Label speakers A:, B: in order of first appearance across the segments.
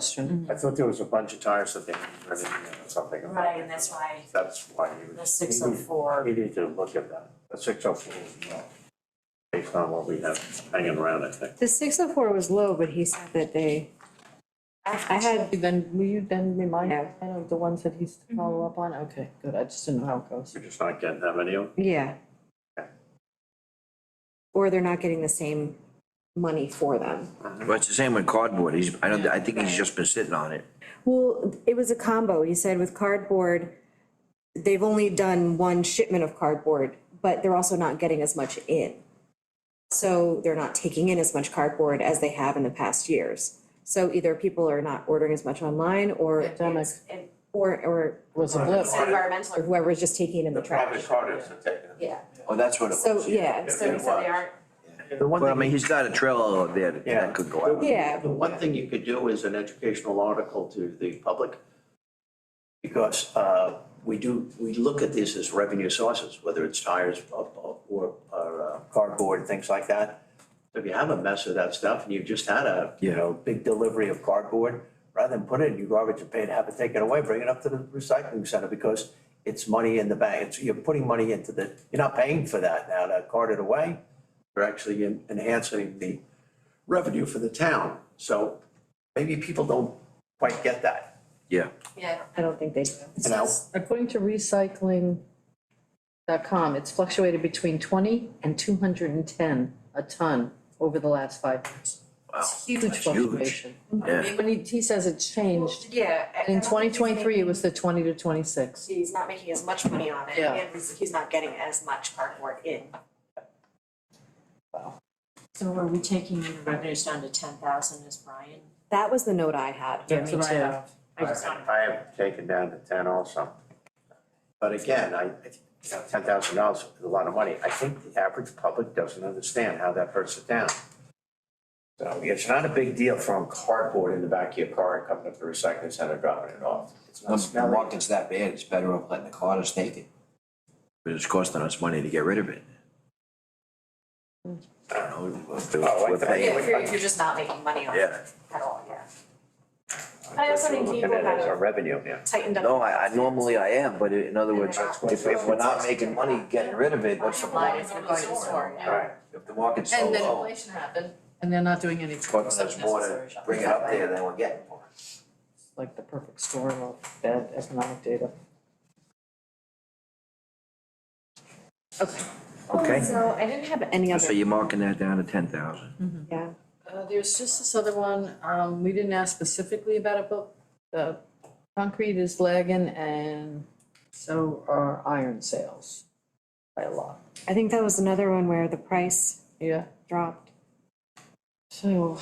A: question.
B: I thought there was a bunch of tires that they were in or something.
C: Right, and that's why
B: That's why you.
C: the six oh four.
B: We need to look at that, the six oh four as well, based on what we have hanging around, I think.
D: The six oh four was low, but he said that they, I had,
A: Then, will you then remind
D: Yeah.
A: Ken of the ones that he's
E: Mm-hmm.
A: to follow up on? Okay, good, I just didn't know how it goes.
B: We're just not getting that many of them.
D: yeah. Or they're not getting the same money for them.
E: Well, it's the same with cardboard, he's, I don't, I think he's just been sitting on it.
D: Well, it was a combo. He said with cardboard, they've only done one shipment of cardboard, but they're also not getting as much in. So they're not taking in as much cardboard as they have in the past years. So either people are not ordering as much online or,
A: Pandemic
C: It
D: or, or
A: was a blip.
C: it's environmental,
D: or whoever's just taking in the trash.
B: carders are taking it.
C: yeah,
E: Oh, that's what it
D: So, yeah,
C: so so they aren't,
B: The one
E: Well, I mean,
B: thing,
E: he's got a trailer over there that-
B: Yeah.
E: that could go out.
D: yeah.
F: The one thing you could do is an educational article to the public. Because uh, we do, we look at these as revenue sources, whether it's tires or or- or, uh, cardboard, things like that. If you have a mess of that stuff and you just had a, you
E: Yeah.
F: know, big delivery of cardboard, rather than put it in your garbage and pay to have it taken away, bring it up to the recycling center because it's money in the bank. It's, you're putting money into the, you're not paying for that now to cart it away. You're actually en- enhancing the revenue for the town. So maybe people don't quite get that.
E: Yeah,
C: yeah.
D: I don't think they do.
F: And I-
A: According to recycling.com, it's fluctuated between twenty and two hundred and ten a ton over the last five years.
E: wow,
A: It's huge
E: that's huge.
A: fluctuation.
E: Yeah,
A: When he, he says it changed,
C: Yeah. I- I
A: in
C: don't
A: twenty
C: think he's
A: twenty-three, it
C: making-
A: was the twenty to twenty-six.
C: He's not making as much money on it,
A: Yeah.
C: and he's he's not getting as much cardboard in. So are we taking the revenues down to ten thousand, is Brian?
D: That was the note I had.
C: Yeah, me too. I just don't.
B: I have taken down to ten also. But again, I, ten thousand dollars is a lot of money. I think the average public doesn't understand how that hurts it down. So it's not a big deal throwing cardboard in the back of your car and coming up to the recycling center, dropping it off. It's not
E: once the
B: smelly.
E: market's that bad, it's better off letting the carders take it. But it's costing us money to get rid of it. I don't know, if
B: Oh, I
E: we're
B: thought-
C: Yeah,
E: paying,
C: if you're, if you're just not making money on it
E: yeah.
C: at all, yeah. I also think
B: Looking
C: people
B: at it as a
C: have
B: revenue, yeah.
C: tightened up.
E: No, I, I normally I am, but in other words,
C: That's
E: if, if we're not making money getting rid of it, what's the
C: Bottom line
E: point?
C: is we're going to the store, yeah.
B: Right.
E: If the market's so
A: And then
E: low, it's
A: inflation happened, and they're not doing any
E: costing us more to bring it up there than we're getting for it.
A: Like the perfect storm of bad economic data.
E: Okay,
D: So I didn't have any
E: so
D: other,
E: you're marking that down to ten thousand.
D: yeah.
A: Uh, there's just this other one, um, we didn't ask specifically about it, but the concrete is lagging and so are iron sales by a lot,
D: I think that was another one where the price
A: yeah,
D: dropped.
A: so.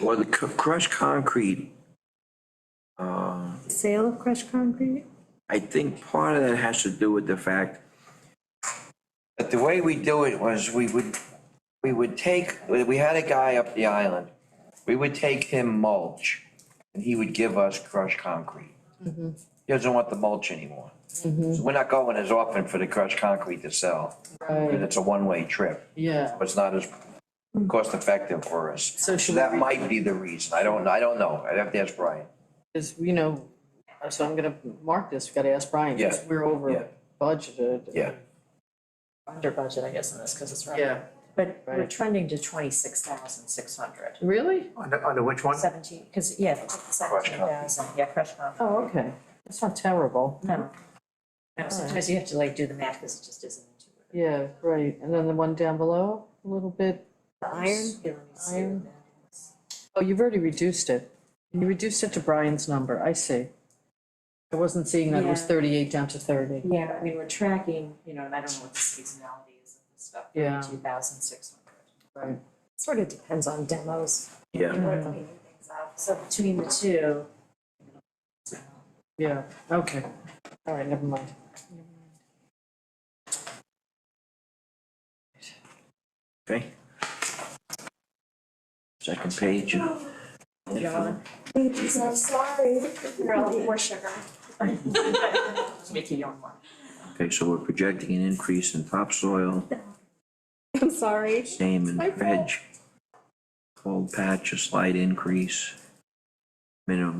E: Well, the cr- crushed concrete, um,
D: Sale of crushed concrete?
E: I think part of that has to do with the fact that the way we do it was we would, we would take, we had a guy up the island. We would take him mulch and he would give us crushed concrete.
A: Mm-hmm.
E: He doesn't want the mulch anymore. So we're not going as often for the crushed concrete to sell. And
A: Right,
E: it's a one-way trip.
A: yeah,
E: It's not as cost effective for us.
A: So should
E: That
A: we-
E: might be the reason. I don't, I don't know. I'd have to ask Brian.
A: cause you know, so I'm gonna mark this, we gotta ask Brian, because
E: Yeah,
A: we're
E: yeah.
A: over budgeted.
E: Yeah.
G: under budget, I guess, in this, because it's right.
A: Yeah,
G: But we're
A: Right.
G: trending to twenty-six thousand six hundred,
A: really?
B: Under, under which one?
G: seventeen, because, yeah, they took the seventeen thousand, yeah, crush comp,
A: Oh, okay, that's not terrible,
G: no. No, sometimes you have to like do the math, because it just isn't intuitive.
A: yeah, right, and then the one down below, a little bit,
D: iron?
G: Yeah, let me see
A: Iron.
G: what that is.
A: oh, you've already reduced it. You reduced it to Brian's number, I see. I wasn't seeing that it was
G: Yeah.
A: thirty-eight down to thirty.
G: Yeah, I mean, we're tracking, you know, and I don't know what the seasonality is of this stuff,
A: Yeah.
G: thirty-two thousand six hundred.
D: Sort of depends on demos.
E: Yeah.
G: People are cleaning things up, so between the two.
A: Yeah, okay, all right, never mind.
E: Okay. Second page.
G: John?
C: I'm sorry. You're all more sugar.
G: Just make your own one.
E: Okay, so we're projecting an increase in topsoil,
D: I'm sorry.
E: same in veg. Cold patch, a slight increase. Minimum